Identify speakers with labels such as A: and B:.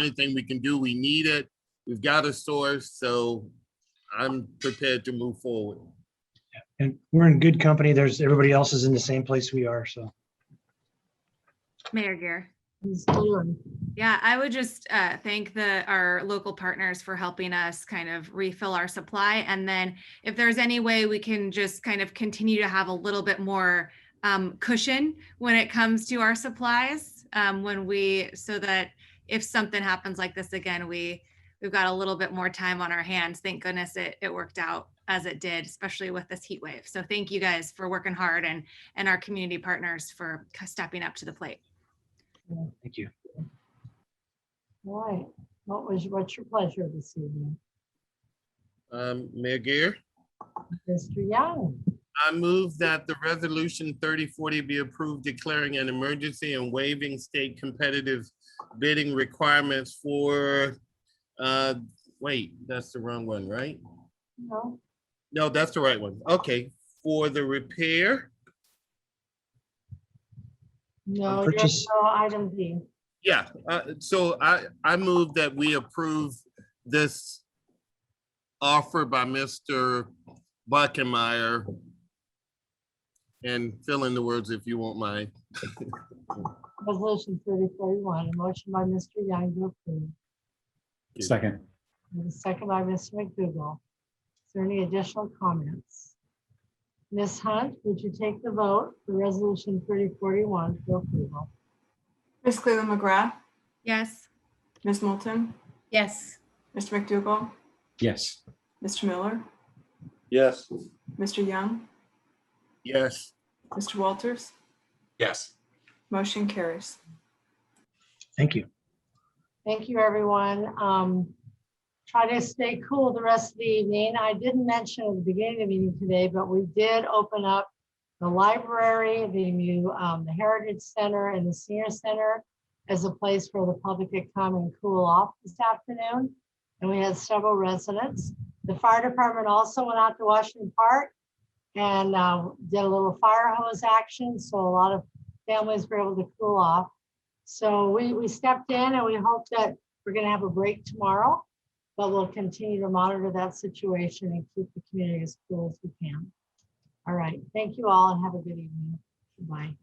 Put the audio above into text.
A: anything we can do. We need it. We've got a source, so I'm prepared to move forward.
B: And we're in good company. There's, everybody else is in the same place we are, so.
C: Mayor Gear.
D: Ms. Dillon,
C: Yeah, I would just uh, thank the, our local partners for helping us kind of refill our supply. And then if there's any way we can just kind of continue to have a little bit more um, cushion when it comes to our supplies, um, when we, so that if something happens like this again, we, we've got a little bit more time on our hands. Thank goodness it, it worked out as it did, especially with this heat wave. So thank you guys for working hard and, and our community partners for stepping up to the plate.
B: Thank you.
D: all right. What was, what's your pleasure this evening?
A: Um, Mayor Gear,
D: Mr. Young,
A: I move that the resolution thirty forty be approved declaring an emergency and waiving state competitive bidding requirements for, uh, wait, that's the wrong one, right?
D: no,
A: No, that's the right one. Okay, for the repair.
D: no,
B: purchase-
D: yes, no, item B.
A: Yeah, uh, so I, I move that we approve this offer by Mr. Buckenmeyer. And fill in the words if you won't mind.
D: Resolution thirty forty-one, a motion by Mr. Young to approve,
E: Second,
D: and a second by Mr. McDougall. Is there any additional comments? Ms. Hunt, would you take the vote for resolution thirty forty-one for approval?
F: Ms. Cleveland McGrath,
C: Yes?
F: Ms. Moulton,
C: Yes.
F: Mr. McDougall,
E: yes,
F: Mr. Miller,
G: Yes.
F: Mr. Young,
A: Yes,
F: Mr. Walters,
G: Yes.
F: motion carries.
B: Thank you.
D: Thank you, everyone. Um, Try to stay cool the rest of the evening. I didn't mention at the beginning of the meeting today, but we did open up the library, the new um, the Heritage Center and the Senior Center as a place where the public could come and cool off this afternoon. And we had several residents. The fire department also went out to Washington Park and uh, did a little fire hose action, so a lot of families were able to cool off. So we, we stepped in and we hope that we're gonna have a break tomorrow, but we'll continue to monitor that situation and keep the community as cool as we can. All right, thank you all and have a good evening. Bye.